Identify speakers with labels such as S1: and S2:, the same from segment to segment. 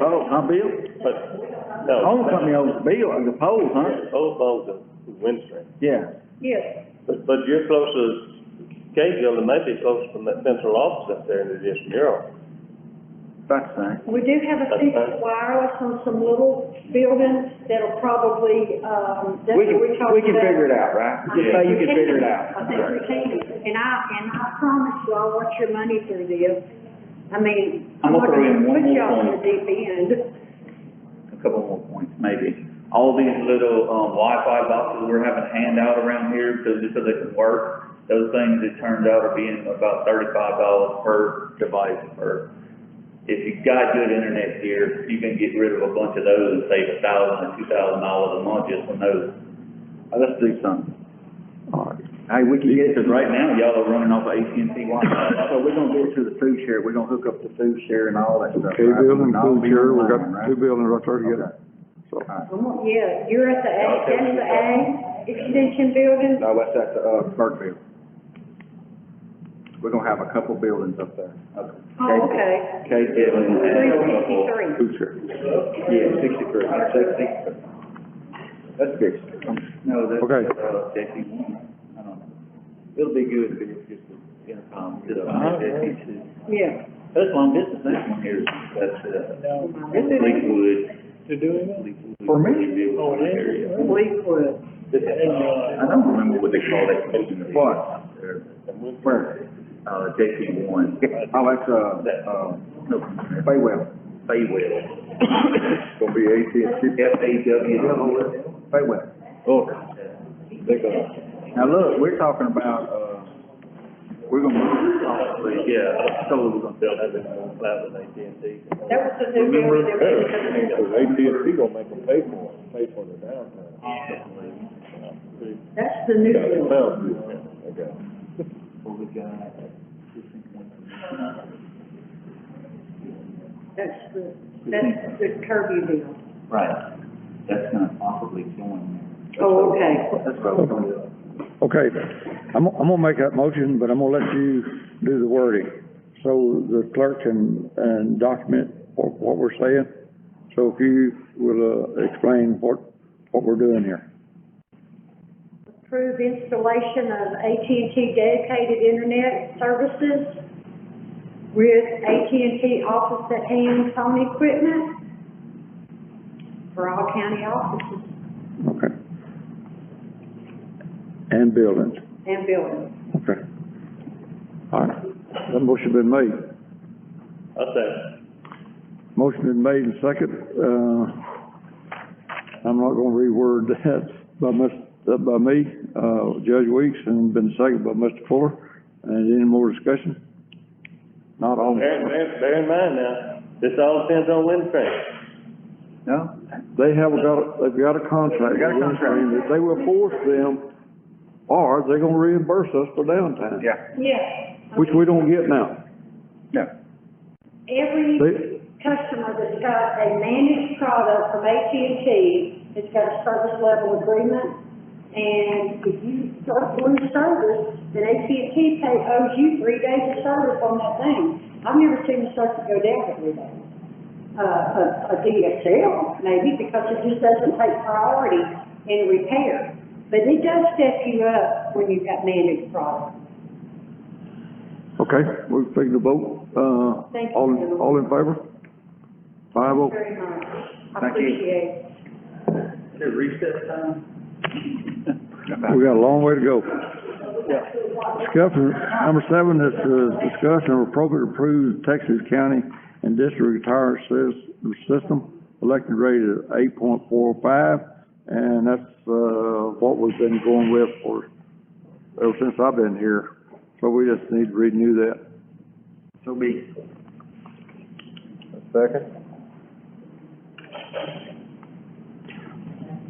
S1: Oh,
S2: huh, Bill?
S1: but, no.
S2: Home company owns the bill, the pole, huh?
S1: Old Bow's a windstream,
S2: Yeah.
S3: Yes,
S1: but, but you're closer to Cahill than maybe close from that central office up there in the district bureau.
S2: That's fine.
S3: we do have a piece of wireless on some little buildings that'll probably, um, that's
S2: We
S3: what
S2: can,
S3: we're talking about.
S2: we can figure it out, right?
S3: I
S2: Just
S3: think
S2: say you
S3: we
S2: can figure it out.
S3: I think we can, and I, and I promise you, I'll watch your money through this. I mean,
S4: I'm
S3: I'm not
S4: gonna throw in
S3: gonna
S4: one
S3: put
S4: more
S3: y'all in the
S4: point.
S3: deep end.
S4: a couple more points, maybe. All these little, um, Wi-Fi boxes we're having to hand out around here, because just so they can work, those things, it turns out, are being about thirty-five dollars per device, per. If you got good internet here, you can get rid of a bunch of those and save a thousand or two thousand dollars a month just on those.
S2: Uh, Let's do something. All right. Hey, we can get it.
S4: Because right now, y'all are running off of AT&T
S2: So
S4: Wi-Fi.
S2: we're gonna get to the food share, we're gonna hook up the food share and all that stuff.
S5: Okay,
S2: right?
S5: building,
S2: And all
S5: food
S2: be
S5: share, we
S2: online,
S5: got
S2: right?
S5: two buildings right there
S2: Okay.
S5: together, so.
S3: I'm on- Yeah, you're at the A,
S4: Y'all take
S3: that's
S4: it.
S3: the A extension building.
S2: No, that's at the, uh, Burkeville. We're gonna have a couple buildings up there.
S3: Oh, okay.
S2: Okay,
S3: Three
S4: Yeah.
S3: sixty-three.
S5: Food share.
S2: yeah, sixty-three, sixty. That's good.
S4: No, that's,
S5: Okay.
S4: uh, JC one, I don't know. It'll be good if it's just the intercom, to the JC two.
S3: Yeah.
S4: That's long distance, that one here, that's, uh, Fleetwood. To do it?
S2: For me?
S4: Oh, yeah. uh,
S3: Fleetwood.
S4: I don't remember what they call that. building.
S2: What? Where?
S4: Uh, JC one,
S2: Oh, that's, uh, uh,
S4: no,
S2: Faywell.
S4: Fayetteville,
S2: Gonna be AT&T.
S4: F A W.
S2: Faywell.
S4: Oh.
S2: Now, look, we're talking about, uh, we're gonna move this off the
S4: Yeah, so we're gonna
S1: They'll have it on cloud with AT&T.
S3: That was the new building that we took.
S1: AT&T gonna make them pay for it, pay for the downtown.
S3: That's the new building.
S4: What we got?
S3: That's the, that's the Kirby deal.
S4: Right, that's gonna possibly join
S3: Oh, okay.
S4: there. That's what we're gonna do.
S5: Okay, I'm, I'm gonna make that motion, but I'm gonna let you do the wording, so the clerk can, and document what, what we're saying. So if you will, uh, explain what, what we're doing here.
S3: Approve installation of AT&T dedicated internet services with AT&T office at hand phone equipment for all county offices
S5: Okay. And buildings,
S3: and buildings.
S5: okay. All right, that motion been made.
S1: I'll say,
S5: Motion been made and second, uh, I'm not gonna reword that by Ms., uh, by me, uh, Judge Weeks, and been seconded by Mr. Fuller. And any more discussion? Not all,
S1: bear, bear, bear in mind now, this all depends on wind train.
S2: No?
S5: they have got, they've got a contract.
S2: They got a contract.
S5: and They will force them, or they're gonna reimburse us for downtime.
S2: Yeah.
S3: Yes.
S5: Which we don't get now.
S2: No.
S5: They-
S3: Every customer that's got a managed product from AT&T has got a service level agreement. And if you start doing service, then AT&T pay, owes you three days of service on that thing. I've never seen a service go down for three days. Uh, a, a DSL maybe, because it just doesn't take priority in repair. But it does step you up when you've got managed products.
S5: Okay, we'll take the vote, uh,
S3: Thank you.
S5: all, all in favor? Five oh,
S3: Very much. I
S4: Thank you.
S3: appreciate it.
S4: Is it recess time?
S5: we got a long way to go. Discussion, number seven is, uh, discussion of appropriate approved Texas County and District Retire sys- System, elected rate of eight point four five, and that's, uh, what we've been going with for, ever since I've been here, so we just need to renew that.
S4: So be.
S2: Second?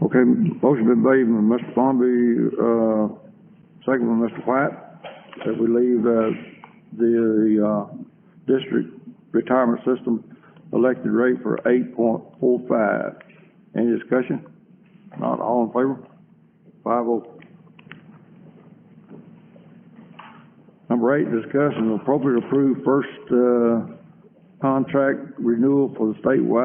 S5: Okay, motion been made by Mr. Bomby, uh, second by Mr. White, that we leave, uh, the, uh, district retirement system elected rate for eight point four five. Any discussion? Not all in favor? Five oh. Number eight, discuss and appropriate approve first, uh, contract renewal for the statewide